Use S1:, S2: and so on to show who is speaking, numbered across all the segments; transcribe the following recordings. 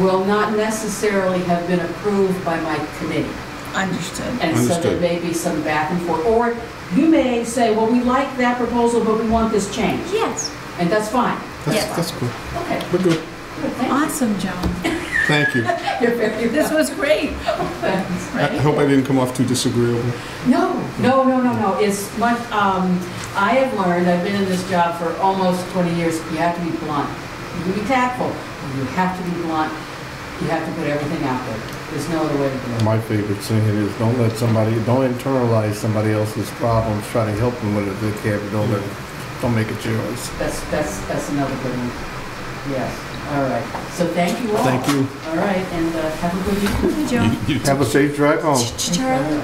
S1: will not necessarily have been approved by my committee.
S2: Understood.
S1: And so there
S3: Understood.
S1: may be some back and forth. Or you may say, well, we like that proposal, but we want this changed.
S2: Yes.
S1: And that's fine.
S2: Yes.
S3: That's, that's cool.
S1: Okay.
S3: We're good.
S1: Good, thank
S2: Awesome, Joan.
S3: Thank you.
S1: you. You're very
S2: This
S1: welcome.
S2: was great.
S1: Thanks.
S3: I I hope I didn't come off too disagreeable.
S1: No, no, no, no, no. It's much, um, I have learned, I've been in this job for almost 20 years, you have to be blunt. You can be tactful, but you have to be blunt. You have to put everything out there. There's no other way to do it.
S4: My favorite saying is, don't let somebody, don't internalize somebody else's problems, try to help them with it if they can, but don't let, don't make it yours.
S1: That's, that's, that's another good one. Yes, all right. So thank you all.
S4: Thank you.
S1: All right, and uh, have a good evening.
S2: Hey, Joan.
S3: You
S4: Have a safe drive home.
S2: Ch- Charlie,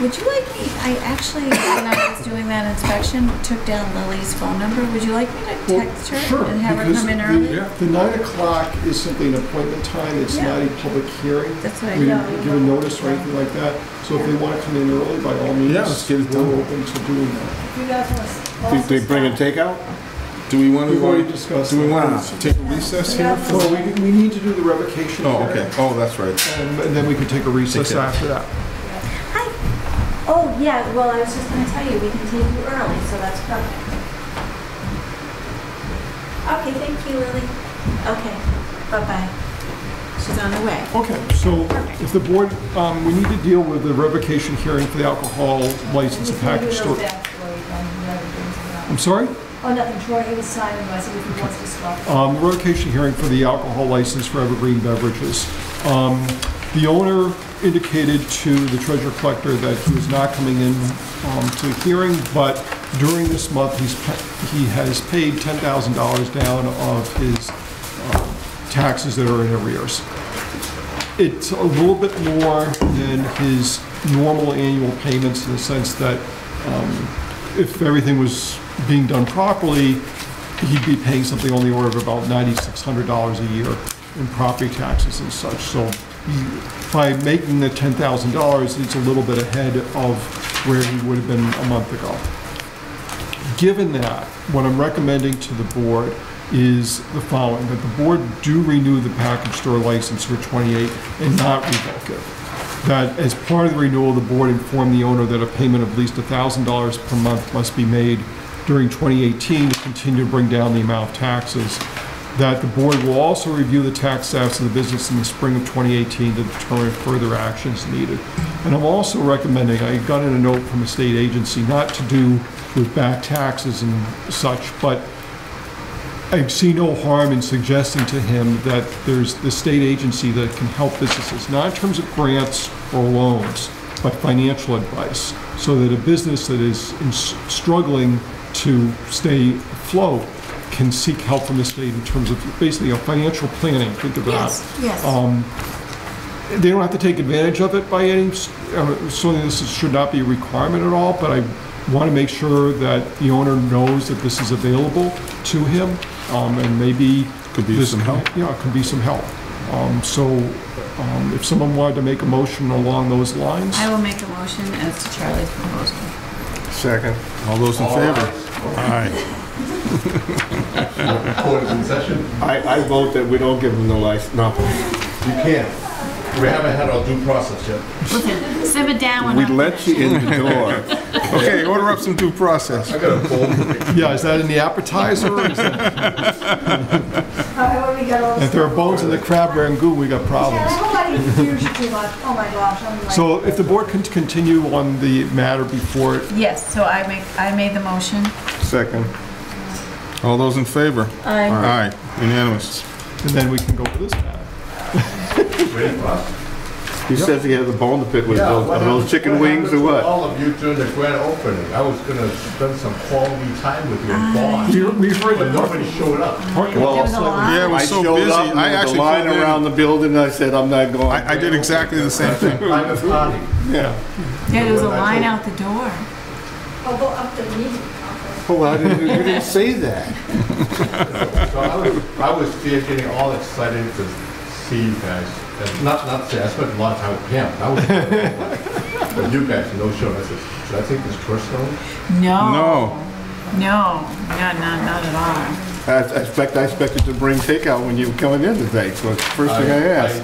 S2: would you like me, I actually, when I was doing that inspection, took down Lily's phone number. Would you like me to
S5: Well,
S2: text her
S5: sure,
S2: and have her
S5: because
S2: come in
S5: the-
S2: early?
S5: The nine o'clock is simply an appointment time, it's
S2: Yeah.
S5: not a public hearing.
S2: That's what I
S5: We
S2: know.
S5: didn't give a notice or anything like that, so if they want to come in early, by all means.
S3: Yeah, let's get it done.
S5: We're open to doing that.
S3: think they bring a takeout? Do we want to,
S5: We've already
S3: do
S5: discussed.
S3: we
S5: that.
S3: want to take a recess here?
S5: Well, we, we need to do the revocation.
S3: Oh,
S5: here,
S3: okay. Oh, that's right.
S5: um, And then we can take a recess
S3: Take that.
S5: after that.
S6: Hi. Oh, yeah, well, I was just gonna tell you, we can take you early, so that's perfect. Okay, thank you, Lily. Okay, bye-bye.
S2: She's on her way.
S5: Okay, so if the board, um, we need to deal with the revocation hearing for the alcohol license and package store. I'm sorry?
S7: Oh, nothing, Troy, it was Simon, I said if he wants to stop.
S3: Oh,
S5: um, revocation hearing for the alcohol license for Evergreen Beverages. Um, The owner indicated to the treasure collector that he was not coming in um, to the hearing, but during this month, he's, pa- he has paid $10,000 down of his um, taxes that are in arrears. It's a little bit more than his normal annual payments in the sense that um, if everything was being done properly, he'd be paying something on the order of about $9,600 a year in property taxes and such. So he- by making the $10,000, it's a little bit ahead of where he would have been a month ago. Given that, what I'm recommending to the board is the following, that the board do renew the package store license for 28 and not revoke it. That as part of the renewal, the board inform the owner that a payment of at least $1,000 per month must be made during 2018 to continue to bring down the amount of taxes. That the board will also review the tax status of the business in the spring of 2018 to determine if further actions needed. And I'm also recommending, I got in a note from a state agency, not to do with back taxes and such, but I see no harm in suggesting to him that there's the state agency that can help businesses, not in terms of grants or loans, but financial advice, so that a business that is in- struggling to stay afloat can seek help from the state in terms of basically a financial planning, think of that.
S2: Yes, yes.
S3: Um,
S5: They don't have to take advantage of it by any, uh, certainly this is- should not be a requirement at all, but I want to make sure that the owner knows that this is available to him, um, and maybe.
S3: Could be
S5: this-
S3: some help.
S5: Yeah, it could be some help. Um, So um, if someone wanted to make a motion along those lines,
S2: I will make a motion as to Charlie's proposal.
S4: Second.
S3: All those in favor? Aye.
S8: Court is in session.
S4: I, I vote that we don't give them the license, no.
S8: You can't. We haven't had our due process yet.
S2: Listen, simmer down when
S3: We
S2: I'm
S3: let you
S2: finished.
S3: in the door. Okay, order up some due process.
S8: I got a cold.
S5: yeah, is that in the appetizer? or is that-
S7: However, we got all this.
S5: If there are bones in the crab and goo, we got
S7: Yeah, I
S5: problems.
S7: hope I didn't confuse you too much, oh my gosh, I'm like.
S5: So if the board can continue on the matter before it
S2: Yes, so I make, I made the motion.
S4: Second.
S3: All those in favor? Aye. Unanimous.
S5: And then we can go to this matter.
S8: Waiting for us.
S4: He says he has a bone to pick with those,
S8: what
S4: are those
S8: happened-
S4: chicken wings or
S8: happened to
S4: what?
S8: All of you during the grand opening. I was gonna spend some quality time with you in Boston,
S5: We- We've heard the
S8: but nobody showed up.
S5: parking
S4: Well,
S2: There
S5: lot.
S2: was a lot.
S3: Yeah, it was so
S4: showed
S3: busy.
S4: up and
S3: I
S4: there was a
S3: actually
S4: Line
S3: pulled in.
S4: around the building, and I said, I'm not going.
S3: I, I did exactly the same thing.
S8: Private party.
S5: Yeah.
S2: Yeah, there was a
S8: When I
S2: line
S8: told-
S2: out the door.
S7: I'll go up to the meeting.
S4: Oh, I didn't, you didn't say that.
S8: So I was, I was there getting all excited to see you guys. And Not, not say, I spent a lot of time with Pam. I was, but you guys, no show. I said, should I take this personally?
S2: No.
S3: No.
S2: No, not, not, not at all.
S4: I I expect, I expected to bring takeout when you were coming in today, so it's the first thing I
S8: I- I-
S4: asked.